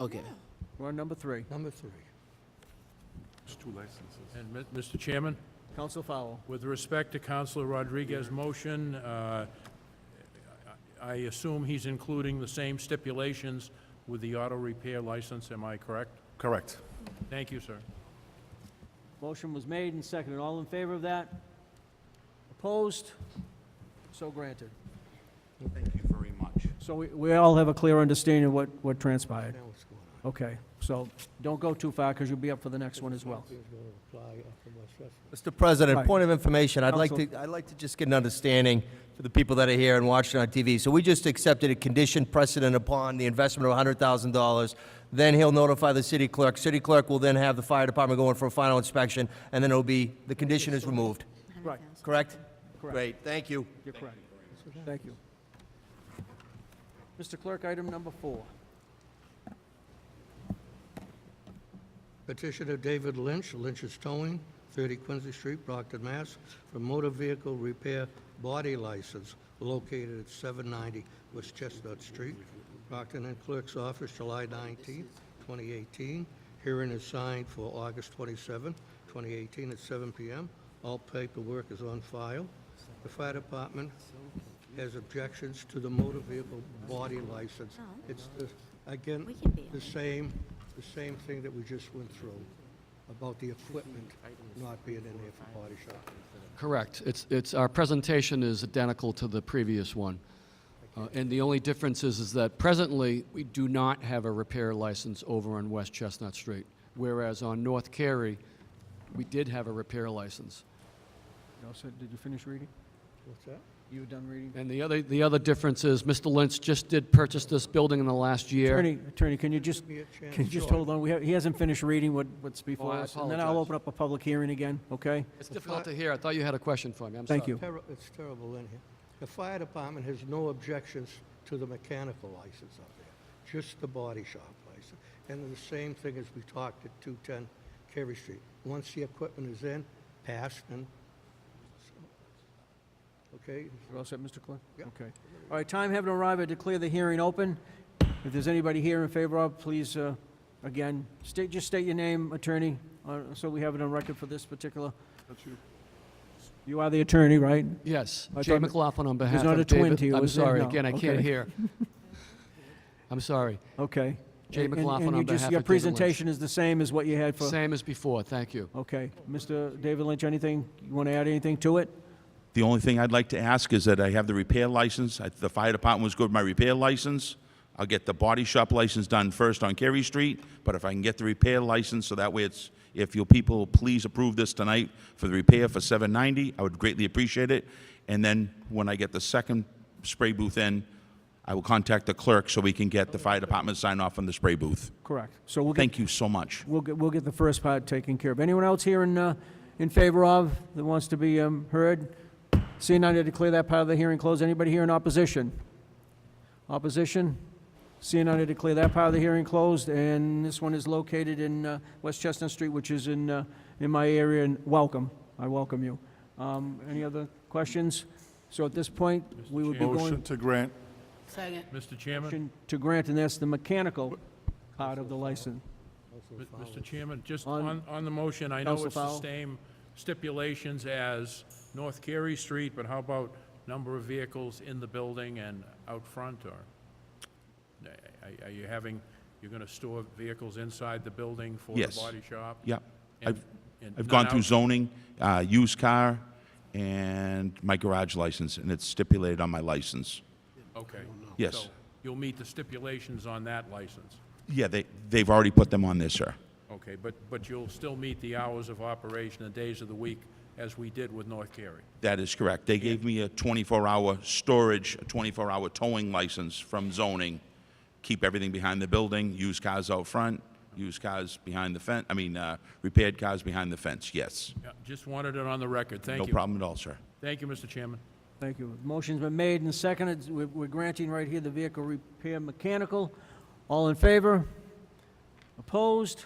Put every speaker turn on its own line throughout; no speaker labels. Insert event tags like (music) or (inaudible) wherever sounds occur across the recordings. Okay.
We're on number three.
Number three.
There's two licenses.
And, Mi- Mr. Chairman,
Counsel Fowl.
with respect to Counselor Rodriguez's motion, uh, I I assume he's including the same stipulations with the auto repair license, am I correct?
Correct.
Thank you, sir.
Motion was made and seconded. All in favor of that? Opposed? So granted.
Thank you very much.
So we, we all have a clear understanding of what, what transpired.
Now what's going on?
Okay, so don't go too far, because you'll be up for the next one as well.
Something's gonna apply up in West Sheffield.
Mr. President,
Right.
point of information, I'd like
Counsel.
to, I'd like to just get an understanding for the people that are here and watching on TV. So we just accepted a condition precedent upon the investment of $100,000. Then he'll notify the city clerk. City clerk will then have the fire department go in for a final inspection, and then it'll be, the condition is removed.
Right,
Correct?
Correct.
Great, thank you.
you're correct. Thank you. Mr. Clerk, item number four.
Petitioner David Lynch, Lynch's Towing, 30 Quincy Street, Brockton, Mass., for motor vehicle repair body license located at 790 West Chestnut Street, Brockton and Clerk's Office, July 19, 2018. Hearing is signed for August 27, 2018, at 7 p.m. All paperwork is on file. The fire department has objections to the motor vehicle body license. It's, the- again,
Oh. We can be on
the same, the same thing that we just went through about the equipment not being in there for body shop.
Correct. It's, it's, our presentation is identical to the previous one. Uh, And the only difference is, is that presently, we do not have a repair license over on West Chestnut Street, whereas on North Carey, we did have a repair license.
You all set? Did you finish reading?
What's that?
You were done reading?
And the other, the other difference is, Mr. Lynch just did purchase this building in the last year.
Attorney, attorney, can you just,
Give me a chance.
can you just
Sure.
hold on? We have, he hasn't finished reading what, what's before
I
us. And then I'll
apologize.
open up a public hearing again, okay?
It's difficult to hear. I thought you had a question for me. I'm sorry.
Thank you.
Terri- It's terrible in here. The fire department has no objections to the mechanical license up there, just the body shop license. And the same thing as we talked at 210 Carey Street. Once the equipment is in, passed and, okay?
You're all set, Mr. Clerk?
Yeah.
Okay. All right, time having arrived, I declare the hearing open. If there's anybody here in favor of, please, uh, again, state, just state your name, attorney, uh, so we have it on record for this particular.
That's you.
You are the attorney, right?
Yes,
I
Jay
thought-
McLaughlin on behalf
not a
of
twin
David.
to you,
I'm
is there?
sorry,
No.
again, I can't
Okay. (laughs)
hear. I'm sorry.
Okay.
Jay
And- and-
McLaughlin
and
on
you just-
behalf
Your
of David Lynch.
presentation is the same as what you had for,
Same as before, thank you.
okay. Mr. David Lynch, anything, you want to add anything to it?
The only thing I'd like to ask is that I have the repair license. I- The fire department was good with my repair license. I'll get the body shop license done first on Carey Street, but if I can get the repair license, so that way it's, if your people please approve this tonight for the repair for 790, I would greatly appreciate it. And then when I get the second spray booth in, I will contact the clerk so we can get the fire department to sign off on the spray booth.
Correct. So we'll get,
Thank you so much.
we'll get, we'll get the first part taken care of. Anyone else here in, uh, in favor of, that wants to be um, heard? Seeing none, I declare that part of the hearing closed. Anybody here in opposition? Opposition? Seeing none, I declare that part of the hearing closed, and this one is located in uh, West Chestnut Street, which is in, uh, in my area, and welcome, I welcome you. Um, Any other questions? So at this point, we would be
Motion
going
to grant.
Second.
Mr. Chairman?
motion to grant, and that's the mechanical part of the license.
M- Mr. Chairman, just
On-
on, on the motion, I know
Counsel
it's the
Fowle.
same stipulations as North Carey Street, but how about number of vehicles in the building and out front, or? Are- Are you having, you're gonna store vehicles inside the building for the
Yes.
body shop?
Yep.
And-
I've-
and
I've
none
gone through
out-
zoning, uh, used car, and my garage license, and it's stipulated on my license.
Okay.
Yes.
So You'll meet the stipulations on that license.
Yeah, they, they've already put them on there, sir.
Okay, but, but you'll still meet the hours of operation, the days of the week, as we did with North Carey.
That is correct. They gave me a 24-hour storage, a 24-hour towing license from zoning. Keep everything behind the building, used cars out front, used cars behind the fence, I mean, uh, repaired cars behind the fence, yes.
Yeah, Just wanted it on the record. Thank
No
you.
problem at all, sir.
Thank you, Mr. Chairman.
Thank you. Motion's been made and seconded. We're we're granting right here the vehicle repair mechanical. All in favor? Opposed?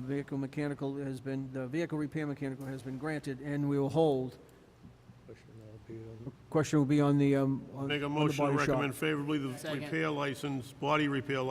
Vehicle mechanical has been, the vehicle repair mechanical has been granted, and we will hold. Question will be on um, the, um, on on the
Make
body
a
shop.
motion to recommend favorably the
Second.
repair license, body repair license